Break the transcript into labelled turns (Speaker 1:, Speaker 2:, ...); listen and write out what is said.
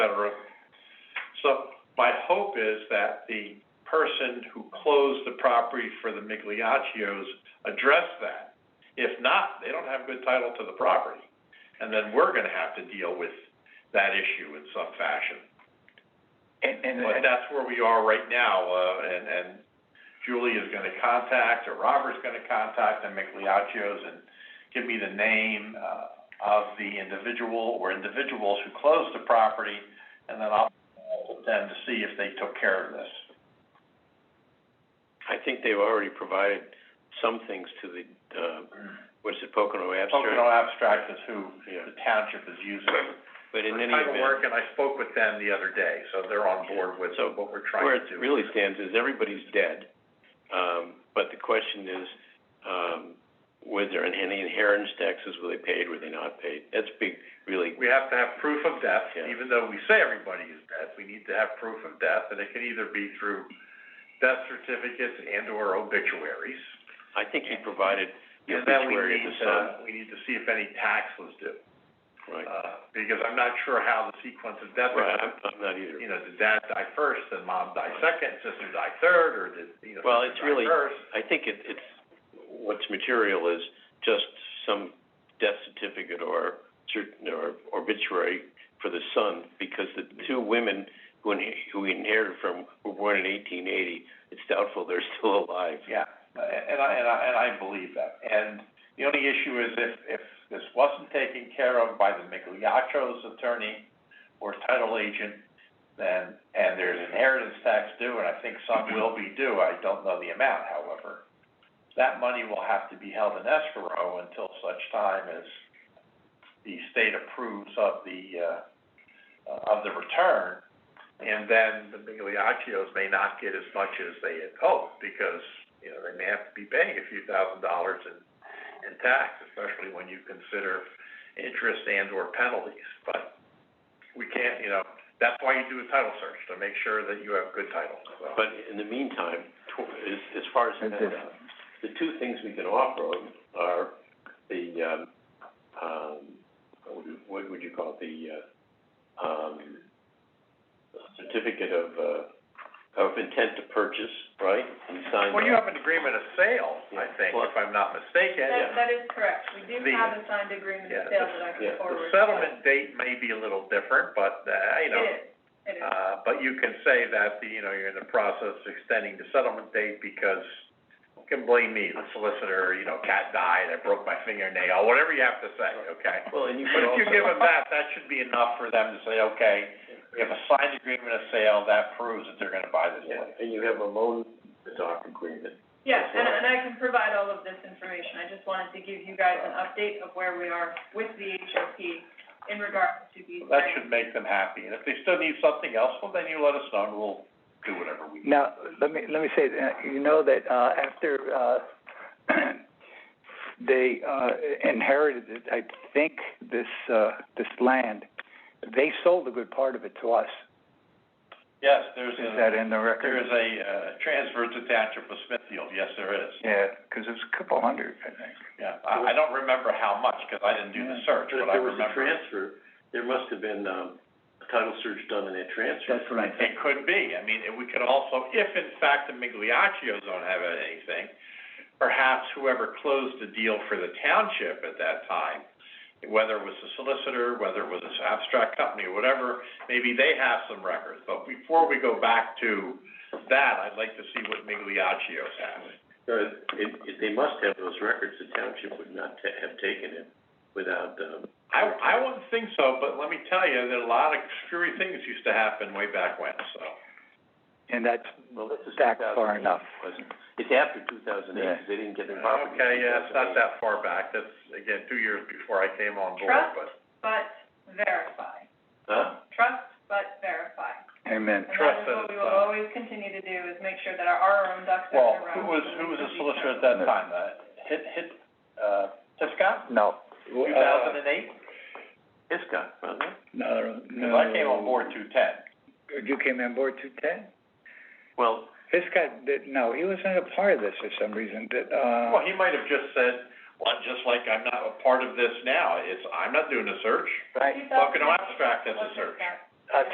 Speaker 1: cetera. So my hope is that the person who closed the property for the Migliaccios addressed that. If not, they don't have good title to the property. And then we're gonna have to deal with that issue in some fashion.
Speaker 2: And, and,
Speaker 1: But that's where we are right now, uh, and, and Julie is gonna contact, or Robert's gonna contact the Migliaccios and give me the name, uh, of the individual or individuals who closed the property, and then I'll call them to see if they took care of this.
Speaker 3: I think they've already provided some things to the, uh, what is it, Pocono Abstract?
Speaker 1: Pocono Abstract is who
Speaker 3: Yeah.
Speaker 1: the township is using.
Speaker 3: But in any
Speaker 1: For title
Speaker 3: event,
Speaker 1: work, and I spoke with them the other day, so they're on board with
Speaker 3: So,
Speaker 1: what we're
Speaker 3: where
Speaker 1: trying
Speaker 3: it
Speaker 1: to do.
Speaker 3: really stands is everybody's dead. Um, but the question is, um, was there any inheritance taxes, were they paid, were they not paid? That's big, really,
Speaker 1: We have to have proof of death,
Speaker 3: Yeah.
Speaker 1: even though we say everybody is dead, we need to have proof of death, and it can either be through death certificates and or obituaries.
Speaker 3: I think he provided the
Speaker 1: And then we
Speaker 3: obituary of
Speaker 1: need
Speaker 3: the
Speaker 1: to,
Speaker 3: son,
Speaker 1: we need to see if any tax was due,
Speaker 3: right?
Speaker 1: uh, because I'm not sure how the sequence of death.
Speaker 3: Right, I'm, I'm not either.
Speaker 1: You know, did dad die first, then mom die second, sister die third, or did, you know,
Speaker 3: Well,
Speaker 1: sister
Speaker 3: it's
Speaker 1: die
Speaker 3: really-
Speaker 1: first?
Speaker 3: I think it, it's, what's material is just some death certificate or cer- or obituary for the son, because the two women who inhe- who he inherited from were born in eighteen eighty, it's doubtful they're still alive.
Speaker 1: Yeah, and I, and I, and I believe that. And the only issue is if, if this wasn't taken care of by the Migliaccio's attorney or title agent, then, and there's inheritance tax due, and I think some will be due, I don't know the amount, however. That money will have to be held in escrow until such time as the state approves of the, uh, of the return. And then the Migliaccios may not get as much as they had hoped, because, you know, they may have to be paying a few thousand dollars in, in tax, especially when you consider interest and or penalties. But we can't, you know, that's why you do a title search, to make sure that you have good title, so.
Speaker 3: But in the meantime, tw- as, as far as that, uh, the two things we can offer them are the, um, um, what would you, what would you call it, the, uh, um, certificate of, uh, of intent to purchase, right? And sign
Speaker 1: Well, you
Speaker 3: that.
Speaker 1: have an agreement of sale, I think, if I'm not mistaken.
Speaker 3: Yeah.
Speaker 4: That, that is correct. We do
Speaker 1: The-
Speaker 4: have a signed agreement
Speaker 1: yeah,
Speaker 4: of sale that I can
Speaker 1: The
Speaker 3: yeah, the
Speaker 4: forward.
Speaker 1: settlement date may be a little different, but, uh, you know,
Speaker 4: It is, it is.
Speaker 1: Uh, but you can say that, you know, you're in the process of extending the settlement date because, who can blame me, the solicitor, you know, cat died, I broke my fingernail, whatever you have to say, okay?
Speaker 3: Well, and you
Speaker 1: But
Speaker 3: could
Speaker 1: if you
Speaker 3: also-
Speaker 1: give them that, that should be enough for them to say, okay, we have a signed agreement of sale, that proves that they're gonna buy this
Speaker 3: Yeah,
Speaker 1: place.
Speaker 3: and you have a loan doc agreement.
Speaker 4: Yeah, and, and I can provide all of this information. I just wanted to give you guys an update of where we are with the HOP in regards to these grants.
Speaker 1: That should make them happy, and if they still need something else, well, then you let us know, and we'll do whatever we can.
Speaker 2: Now, let me, let me say, uh, you know that, uh, after, uh, they, uh, inherited, it, I think, this, uh, this land, they sold a good part of it to us.
Speaker 1: Yes, there's
Speaker 2: Is
Speaker 1: a,
Speaker 2: that in the
Speaker 1: there
Speaker 2: record?
Speaker 1: is a, uh, transfer to Township of Smithfield, yes, there is.
Speaker 2: Yeah, 'cause it was a couple hundred, I think.
Speaker 1: Yeah, I, I don't remember how much, 'cause I didn't do the search,
Speaker 3: But if
Speaker 1: but I
Speaker 3: there was a
Speaker 1: remember.
Speaker 3: transfer, there must have been, um, a title search done in that transfer.
Speaker 2: That's what I
Speaker 1: It could be, I mean, we could also, if in fact the Migliaccios don't have anything, perhaps whoever closed the deal for the township at that time, whether it was the solicitor, whether it was this abstract company, or whatever, maybe they have some records. But before we go back to that, I'd like to see what Migliaccios have.
Speaker 3: Uh, it, it, they must have those records, the township would not ta- have taken it without, um,
Speaker 1: I, I wouldn't think so, but let me tell you, that a lot of screwy things used to happen way back when, so.
Speaker 2: And that's
Speaker 3: well, this is
Speaker 2: back
Speaker 3: 2008,
Speaker 2: far enough.
Speaker 3: wasn't it? It's after two thousand eight,
Speaker 2: Yeah.
Speaker 3: because they didn't get their property.
Speaker 1: Okay, yeah, it's not
Speaker 3: until
Speaker 1: that far back, that's, again, two years before I came on board,
Speaker 4: Trust.
Speaker 1: but.
Speaker 4: But verify.
Speaker 3: 2008. Huh?
Speaker 4: Trust, but verify.
Speaker 2: Amen.
Speaker 4: And
Speaker 1: Trust
Speaker 4: that is what we
Speaker 1: that it's
Speaker 4: will
Speaker 1: done.
Speaker 4: always continue to do, is make sure that our, our own ducks are in a
Speaker 1: uh, Well,
Speaker 4: row.
Speaker 1: who was,
Speaker 4: so
Speaker 1: who
Speaker 4: we
Speaker 1: was the
Speaker 4: can be
Speaker 1: solicitor at
Speaker 4: careful.
Speaker 1: that time, uh, Hit, Hit, uh, Hiscott,
Speaker 2: No.
Speaker 1: two thousand and eight?
Speaker 3: Hiscon, wasn't it?
Speaker 2: Uh, No, no.
Speaker 1: Cause I came on board two ten.
Speaker 2: You came on board two ten?
Speaker 3: Well,
Speaker 2: This guy, did no, he wasn't a part of this for some reason, that, uh.
Speaker 1: Well, he might have just said, well, just like I'm not a part of this now, it's, I'm not doing a search,
Speaker 2: Right.
Speaker 1: Pocono Abstract is a
Speaker 4: Wasn't
Speaker 1: search.
Speaker 4: that-